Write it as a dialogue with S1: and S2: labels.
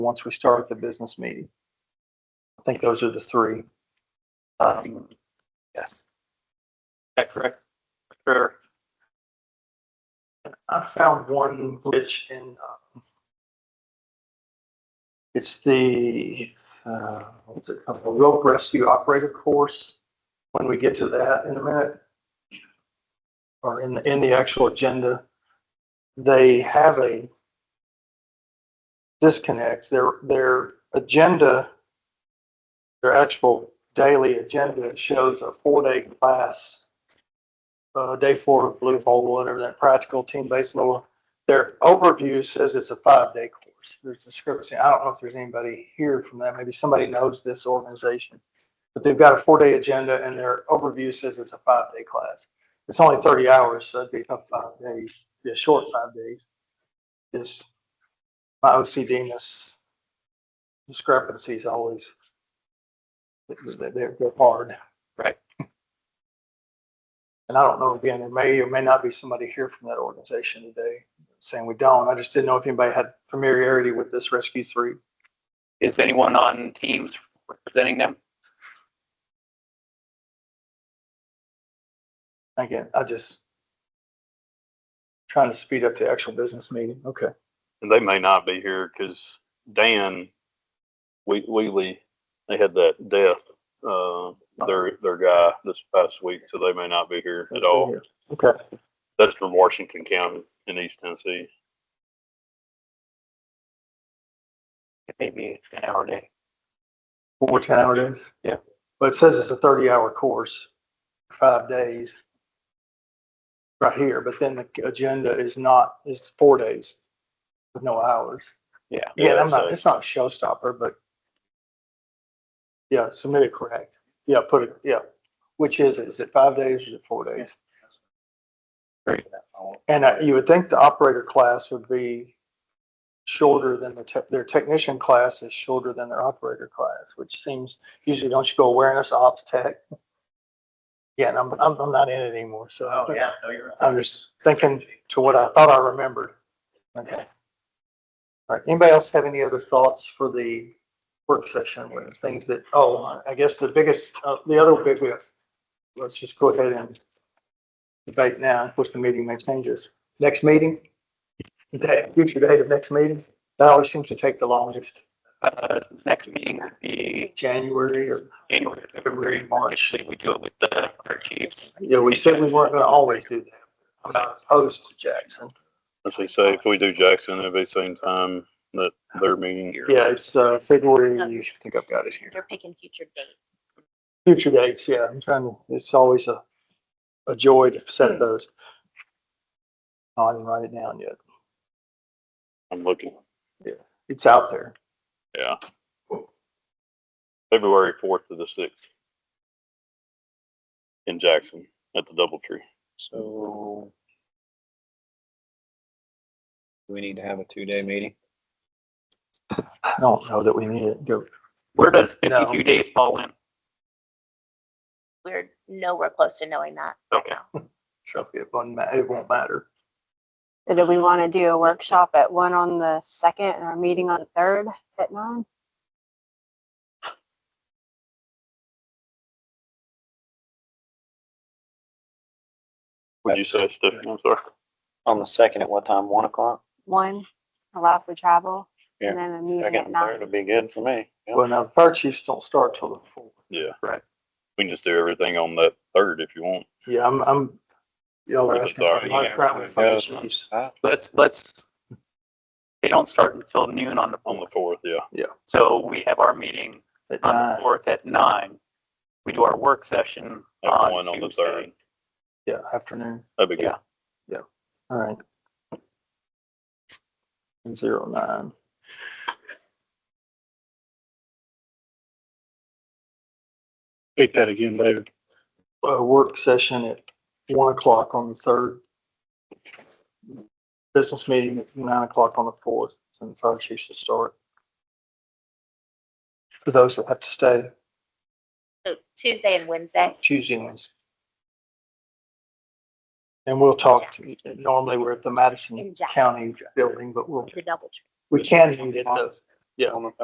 S1: once we start the business meeting. I think those are the three. Um, Yes. Is that correct? Sure. I found one glitch in, um, it's the, uh, what's it called? The rope rescue operator course. When we get to that in a minute. Or in, the in the actual agenda, they have a disconnects. Their, their agenda, their actual daily agenda shows a four-day class, uh, day four of Blue Hole, whatever that practical team-based law. Their overview says it's a five-day course. There's discrepancy. I don't know if there's anybody here from that. Maybe somebody knows this organization. But they've got a four-day agenda and their overview says it's a five-day class. It's only thirty hours, so it'd be about five days, be a short five days. Just my OCDness discrepancies always, they're, they're they're hard.
S2: Right.
S1: And I don't know, again, there may or may not be somebody here from that organization today saying we don't. I just didn't know if anybody had familiarity with this Rescue Three.
S2: Is anyone on Teams representing them?
S1: Again, I just trying to speed up the actual business meeting. Okay.
S3: And they may not be here because Dan Whe- Wheatley, they had that death, uh, their, their guy this past week, so they may not be here at all.
S1: Okay.
S3: That's from Washington County in East Tennessee.
S2: Maybe it's an hour day.
S1: Four ten hour days?
S2: Yeah.
S1: But it says it's a thirty hour course, five days. Right here, but then the agenda is not, it's four days with no hours.
S2: Yeah.
S1: Yeah, I'm
S3: that's
S1: not,
S3: a-
S1: it's not a showstopper, but. Yeah, submit it correct. Yeah, put it, yeah. Which is, it? Is it five days or is it four days?
S2: Great.
S1: And uh, you would think the operator class would be shorter than the, tech- their technician class is shorter than their operator class, which seems, usually don't you go awareness ops tech? Yeah, and I'm, I'm, I'm not in it anymore, so.
S2: Oh, yeah, no, you're right.
S1: I'm just thinking to what I thought I remembered. Okay. All right, anybody else have any other thoughts for the work session with things that, oh, I guess the biggest, uh, the other big, we have- let's just go ahead and debate now, of course, the meeting may changes. Next meeting? Day, future date of next meeting? That always seems to take the longest,
S2: Uh, next meeting would be
S1: January or,
S2: January, February, March. Usually we do it with the, our chiefs.
S1: yeah, we said we weren't gonna always do that. I'm not opposed to Jackson.
S3: As they say, if we do Jackson, it'll be same time that their meeting.
S1: Yeah, it's, uh, February, I think I've got it here.
S4: They're picking future dates.
S1: Future dates, yeah, I'm trying to, it's always a, a joy to set those. I didn't write it down yet.
S3: I'm looking,
S1: It's out there.
S3: yeah. February fourth to the sixth. In Jackson at the Doubletree.
S5: So. Do we need to have a two-day meeting?
S1: I don't know that we need it. Go-
S2: Where does
S1: No.
S2: fifty-two days fall in?
S4: We're nowhere close to knowing that.
S2: Okay.
S1: So it won't, ma- it won't matter.
S6: So do we want to do a workshop at one on the second and our meeting on the third at nine?
S3: Would you say, Stephanie? I'm sorry.
S5: On the second at what time? One o'clock?
S6: One, allow for travel,
S5: Yeah.
S6: and then a meeting
S5: Second
S6: at
S5: and third
S6: nine.
S5: would be good for me. Yeah.
S1: Well, now the fire chiefs don't start till the fourth.
S3: Yeah.
S2: Right.
S3: We can just do everything on that third if you want.
S1: Yeah, I'm, I'm, y'all are
S3: I'm
S1: asking for
S3: sorry,
S1: my
S2: yeah.
S1: problem with fire chiefs.
S2: Let's, let's, they don't start until noon on the,
S3: On the fourth, yeah.
S2: so we have our meeting
S1: at
S2: on the
S1: nine.
S2: fourth at nine. We do our work session
S3: At
S2: on
S3: one on the
S2: Tuesday.
S3: third.
S1: Yeah, afternoon.
S3: That'd be good.
S1: All right. And Zero nine.
S7: Repeat that again, David.
S1: a work session at one o'clock on the third. Business meeting at nine o'clock on the fourth, and the fire chiefs will start. For those that have to stay,
S4: So Tuesday and Wednesday.
S1: Tuesday ones. And we'll talk, to- normally we're at the Madison
S4: In Jackson.
S1: County building, but we'll,
S4: The double.
S1: we can meet at the
S8: Yeah.
S2: On the